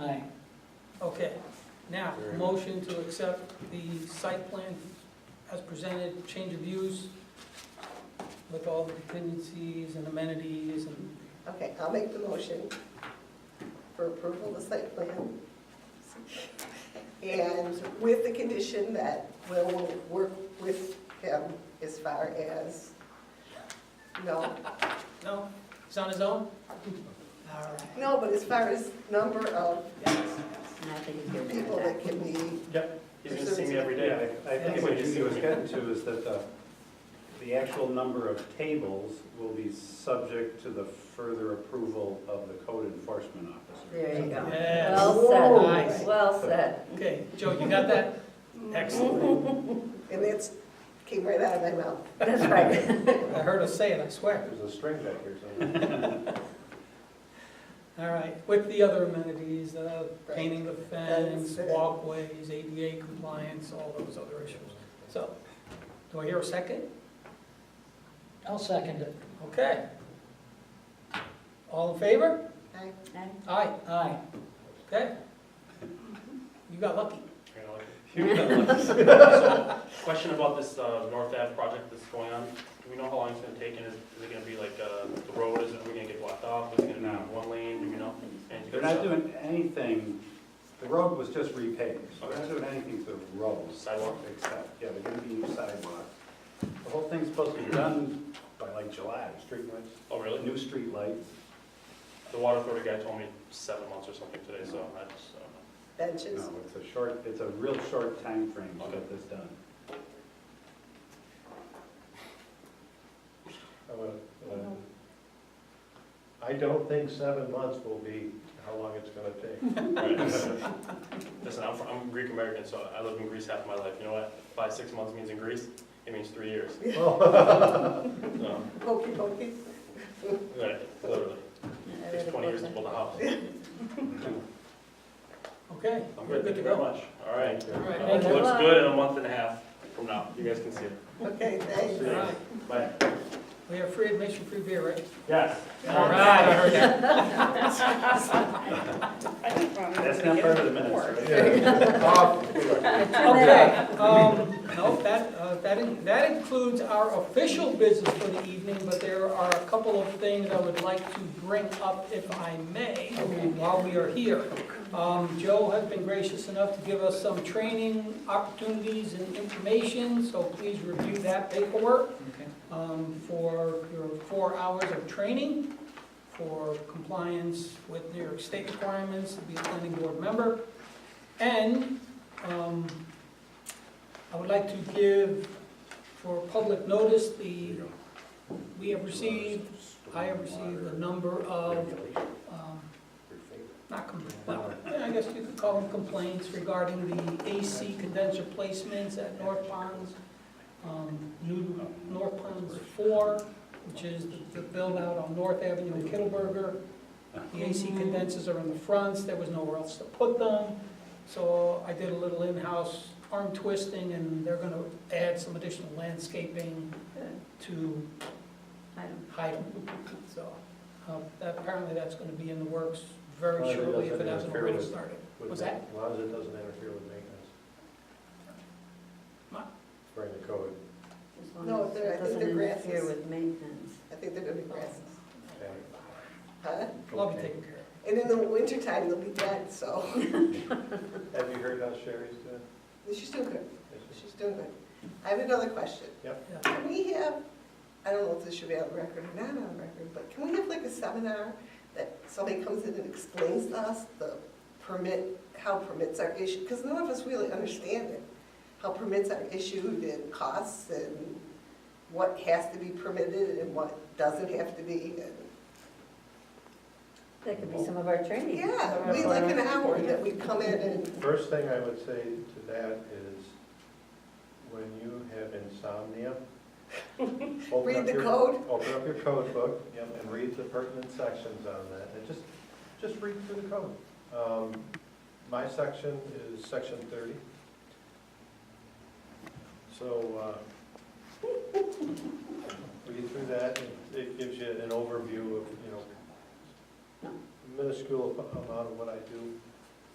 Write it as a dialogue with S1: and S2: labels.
S1: Aye.
S2: Okay, now, motion to accept the site plan as presented, change of views with all the dependencies and amenities and,
S3: Okay, I'll make the motion for approval of the site plan. And with the condition that Will will work with him as far as, no,
S2: no, it's on his own? All right.
S3: no, but as far as number of
S1: And I think it's good.
S3: people that can be,
S4: You're gonna see me every day. I I think what you was getting to is that the, the actual number of tables will be subject to the further approval of the code enforcement officer.
S5: There you go.
S2: Yes,
S5: Well
S3: Whoa.
S5: said,
S2: Nice.
S5: well said.
S2: okay, Joe, you got that? Excellent.
S3: and that's, came right out of my mouth.
S5: That's right.
S2: I heard us say it, I swear.
S4: There's a string back here somewhere.
S2: All right, with the other amenities, uh, painting the fence,
S3: Fence, uh,
S2: walkways, ADA compliance, all those other issues. So, do I hear a second?
S1: I'll second it.
S2: Okay. All in favor?
S3: Aye.
S2: Aye. Aye. Okay. You got lucky.
S6: Kind of like- So, Question about this uh, North Ave project that's going on. Do we know how long it's gonna take, and is is it gonna be like, uh, the road, is it, are we gonna get blocked off? Is it gonna
S4: No.
S6: be one lane, do we know? And-
S4: They're not doing anything, the road was just repaved, so they're not
S6: Okay.
S4: doing anything to the road.
S6: Sidewalk?
S4: Except, yeah, they're gonna be new sidewalk. The whole thing's supposed to be done by like July, streetlights,
S6: Oh, really?
S4: new streetlights.
S6: The water authority guy told me seven months or something today, so I just, uh, I
S3: Benches,
S4: No, it's a short, it's a real short time frame to get this done.
S7: I would, uh, I don't think seven months will be how long it's gonna take.
S6: don't know. Listen, I'm, fr- I'm Greek American, so I lived in Greece half my life, you know what? Five, six months means in Greece, it means three years. So,
S3: hokey pokey.
S6: right, literally, takes twenty years to build a house.
S2: Okay,
S6: I'm
S2: we're good
S6: good, thank
S2: to
S6: you very
S2: go.
S6: much, all right.
S2: All right,
S6: Uh, It
S2: thank you.
S6: looks good in a month and a half from now, you guys can see it.
S3: Okay, thanks.
S2: All right,
S6: Bye.
S2: we have free admission, free beer, right?
S6: Yes.
S2: All right, I heard that.
S4: That's not part of the minutes, right?
S2: Okay, um, no, that, uh, that, in- that includes our official business for the evening, but there are a couple of things I would like to bring up if I may, while we are here. Um, Joe has been gracious enough to give us some training opportunities and information, so please review that paperwork. um, for your four hours of training for compliance with New York State requirements to be a planning board member. And um, I would like to give for public notice the, we have received, I have received a number of, um, not complaints, well, yeah, I guess you could call them complaints regarding the AC condenser placements at North Ponds, um, new North Ponds Four, which is the- the build-out on North Avenue in Kittleberger. The AC condensers are in the fronts, there was nowhere else to put them, so I did a little in-house arm twisting, and they're gonna add some additional landscaping to hide them, so, uh, that- apparently that's gonna be in the works very
S7: Well, it
S2: shortly, if it
S7: doesn't
S2: hasn't
S7: interfere
S2: already
S7: with-
S2: started.
S7: Would-
S2: What's that?
S7: As long as it doesn't interfere with maintenance.
S2: What?
S7: According to code,
S5: As long
S3: No,
S5: as
S3: they're- I
S5: it
S3: think
S5: doesn't
S3: they're
S5: interfere
S3: grasses.
S5: with maintenance.
S3: I think they're gonna be grasses,
S7: okay.
S3: huh?
S2: Love you taking care of
S3: And in the wintertime, they'll be dead, so,
S7: Have you heard how Sherry's doing?
S3: she's doing good.
S7: Is she-
S3: She's doing good. I have another question.
S7: Yep.
S2: Yeah.
S3: Can we have, I don't know if this should be on record or not on record, but can we have like a seminar that somebody comes in and explains to us the permit, how permits are issued? Because none of us really understand it, how permits are issued and costs and what has to be permitted and what doesn't have to be. and-
S5: That could be some of our training.
S3: Yeah, we like an hour that we come in and,
S7: First thing I would say to that is, when you have insomnia, open
S3: read
S7: up
S3: the
S7: your
S3: code.
S7: Open up your code book yep, and read the pertinent sections on that, and just, just read through the code. Um, My section is section thirty. So, uh, read through that, and it gives you an overview of, you know, minuscule amount of what I do